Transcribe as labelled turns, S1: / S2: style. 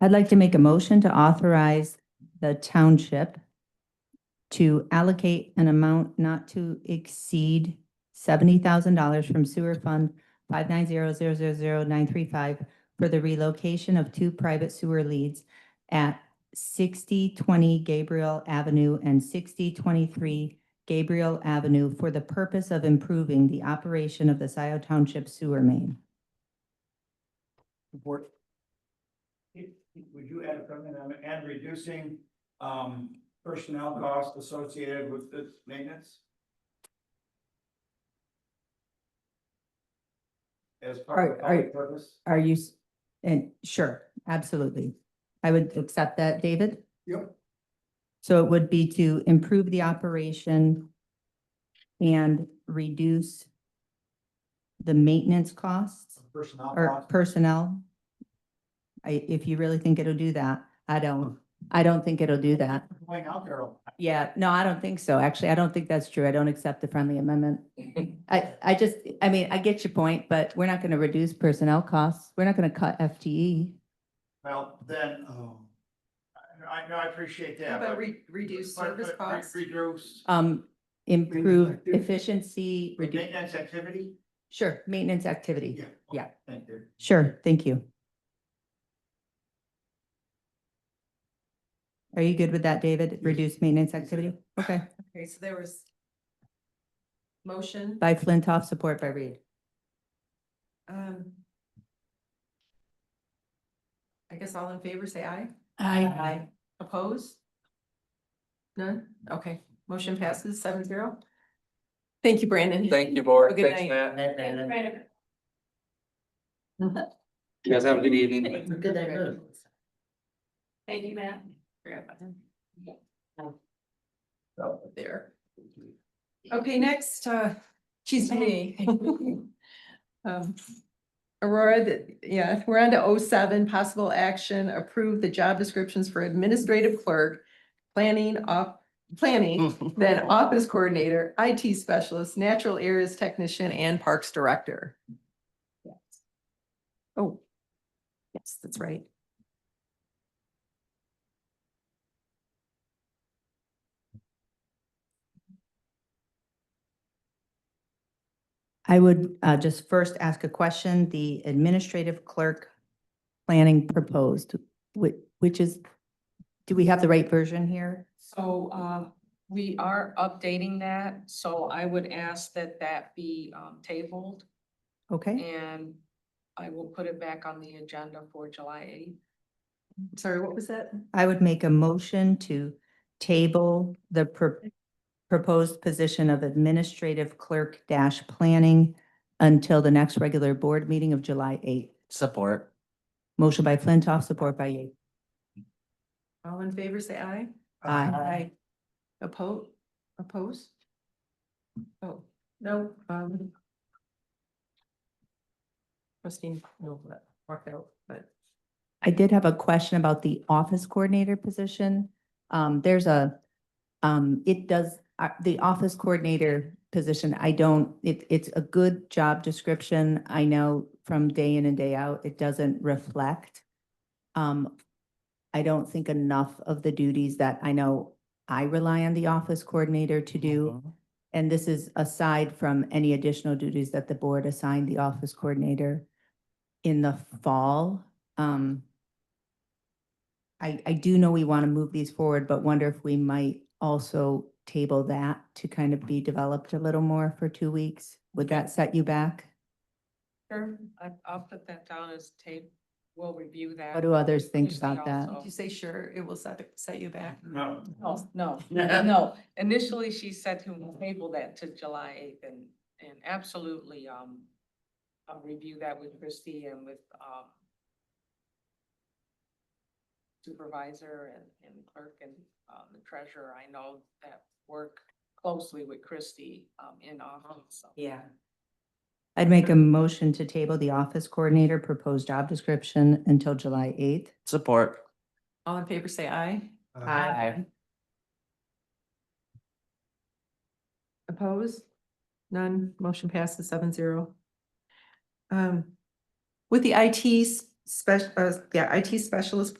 S1: I'd like to make a motion to authorize the township to allocate an amount not to exceed seventy thousand dollars from sewer fund five nine zero zero zero zero nine three five for the relocation of two private sewer leads at sixty twenty Gabriel Avenue and sixty twenty-three Gabriel Avenue for the purpose of improving the operation of the Scioto Township sewer main.
S2: Support. Would you add a comment on, and reducing, um, personnel costs associated with this maintenance? As part of
S1: Are- are-
S2: public purpose?
S1: Are you, s- and sure, absolutely. I would accept that, David.
S2: Yep.
S1: So it would be to improve the operation and reduce the maintenance costs
S2: Personnel
S1: or
S2: costs,
S1: personnel. I, if you really think it'll do that, I don't, I don't think it'll do that.
S2: going out there,
S1: Yeah, no, I don't think so. Actually, I don't think that's true. I don't accept the friendly amendment. I, I just, I mean, I get your point, but we're not going to reduce personnel costs. We're not going to cut E, FTE.
S2: well, then, oh. I, I know, I appreciate
S3: How
S2: that,
S3: about
S2: but.
S3: re- reduce
S2: but-
S3: service
S2: but re-
S3: costs?
S2: Reduce
S1: Um, improve
S2: activity.
S1: efficiency, reduce,
S2: maintenance activity?
S1: sure, maintenance activity. Yeah.
S2: Thank you.
S1: Sure, thank you. Are you good with that, David? Reduce maintenance activity? Okay,
S3: Okay, so there was motion,
S1: by Flintoff, support by Reed.
S3: um. I guess all in favor, say aye.
S1: Aye.
S3: Oppose? None? Okay, motion passes seven zero. Thank you, Brandon.
S4: Thank you, board.
S3: Have a good
S4: Thanks,
S3: night.
S4: Matt.
S3: Brandon.
S4: You guys have a good evening.
S3: Good night. Thank you, Matt. Forgot about him.
S2: So,
S3: There. Okay, next, uh, she's me. Um, Aurora, the- yeah, we're on to 07. possible action, approve the job descriptions for administrative clerk, planning off, planning, then office coordinator, IT specialist, natural areas technician, and parks director. Oh, yes, that's right.
S1: I would uh, just first ask a question. The administrative clerk planning proposed, which, which is, do we have the right version here?
S5: So uh, we are updating that, so I would ask that that be um, tabled Mm.
S1: Okay,
S5: and I will put it back on the agenda for July eighth.
S3: Sorry, what was that?
S1: I would make a motion to table the pro- proposed position of administrative clerk dash planning until the next regular board meeting of July eighth.
S6: Support.
S1: Motion by Flintoff, support by Yates.
S3: All in favor, say aye.
S1: Aye.
S3: Aye. Oppose, oppose? Oh, no, um. Christine, no, that worked out, but
S1: I did have a question about the office coordinator position. Um, there's a, um, it does, uh, the office coordinator position, I don't, it, it's a good job description. I know from day in and day out, it doesn't reflect. Um, I don't think enough of the duties that I know I rely on the office coordinator to do. And this is aside from any additional duties that the board assigned the office coordinator in the fall. Um, I, I do know we want to move these forward, but wonder if we might also table that to kind of be developed a little more for two weeks? Would that set you back?
S5: Sure. I'll put that down as tape, we'll review that.
S1: What do others think
S5: Tuesday
S1: about that?
S5: also.
S3: did you say sure, it will set, set you back?
S2: No.
S5: No, No, no, initially she said to table that to July eighth and, and absolutely, um, I'll review that with Christie and with, um, supervisor and, and clerk and, um, the treasurer, I know that work closely with Christie, um, in office, so.
S3: Yeah.
S1: I'd make a motion to table the office coordinator proposed job description until July eighth.
S6: Support.
S3: All in favor, say aye. Oppose? None. Motion passes seven zero. Um, with the IT special, uh, yeah, IT specialist